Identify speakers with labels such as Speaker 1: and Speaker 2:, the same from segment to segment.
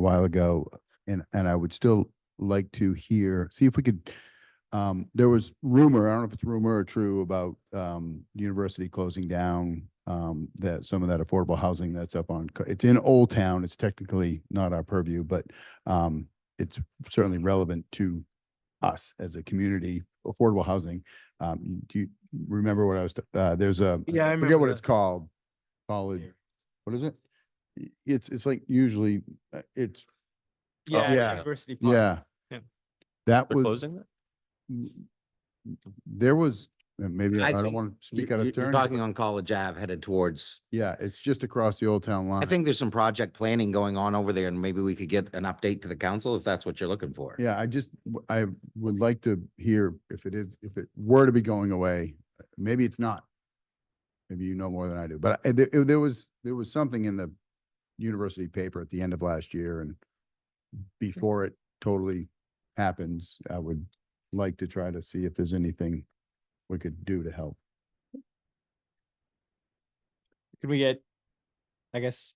Speaker 1: a while ago, and, and I would still like to hear, see if we could, um, there was rumor, I don't know if it's rumor or true, about, um, the university closing down, um, that, some of that affordable housing that's up on, Co- it's in Old Town, it's technically not our purview, but, um, it's certainly relevant to us as a community, affordable housing. Um, do you remember what I was, t- uh, there's a,
Speaker 2: Yeah, I
Speaker 1: I
Speaker 2: remember
Speaker 1: forget what
Speaker 2: that.
Speaker 1: it's called. College, what is it? Y- It's, it's like usually, uh, it's,
Speaker 2: Yeah, it's
Speaker 1: Oh, yeah,
Speaker 2: University Park.
Speaker 1: yeah.
Speaker 2: Yeah.
Speaker 1: That
Speaker 3: They're
Speaker 1: was,
Speaker 3: closing that?
Speaker 1: m- there was, uh, maybe,
Speaker 4: I
Speaker 1: I don't
Speaker 4: think
Speaker 1: want to
Speaker 4: You-
Speaker 1: speak out of
Speaker 4: you- You're
Speaker 1: turn.
Speaker 4: talking
Speaker 1: but-
Speaker 4: on College Ave headed towards,
Speaker 1: Yeah, it's just across the Old Town line.
Speaker 4: I think there's some project planning going on over there and maybe we could get an update to the council if that's what you're looking for.
Speaker 1: Yeah, I just, w- I would like to hear if it is, if it were to be going away, uh, maybe it's not. Maybe you know more than I do, but I- there, there was, there was something in the university paper at the end of last year and before it totally happens, I would like to try to see if there's anything we could do to help.
Speaker 2: Could we get, I guess,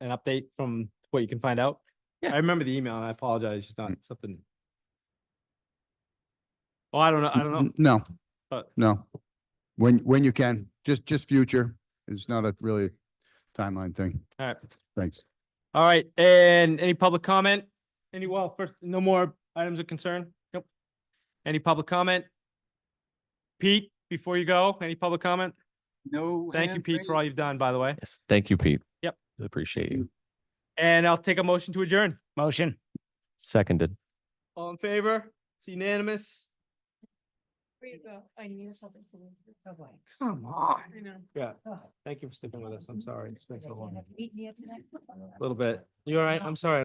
Speaker 2: an update from what you can find out?
Speaker 4: Yeah.
Speaker 2: I remember the email. and I apologize. It's just not
Speaker 1: Mm.
Speaker 2: something. Oh, I don't know. I don't know,
Speaker 1: N- No,
Speaker 2: but
Speaker 1: no. When, when you can, just, just future. It's not a really timeline thing.
Speaker 2: all right.
Speaker 1: Thanks.
Speaker 2: All right. And any public comment? Any, well, first, no more items of concern? Nope. Any public comment? Pete, before you go, any public comment?
Speaker 5: No.
Speaker 2: Thank you,
Speaker 5: hands
Speaker 2: Pete, for all
Speaker 5: raised.
Speaker 2: you've done, by the way.
Speaker 3: Yes, thank you, Pete.
Speaker 2: Yep.
Speaker 3: Appreciate you.
Speaker 2: And I'll take a motion to adjourn. Motion.
Speaker 3: Seconded.
Speaker 2: All in favor? It's unanimous.
Speaker 6: I need a shelter solution.
Speaker 2: Come on.
Speaker 6: I know.
Speaker 2: Yeah,
Speaker 6: Ugh.
Speaker 2: thank you for sticking with us. I'm sorry. Thanks a
Speaker 6: Yeah,
Speaker 2: lot.
Speaker 6: yeah, Meet me at tonight.
Speaker 2: Little bit. You all right? I'm sorry.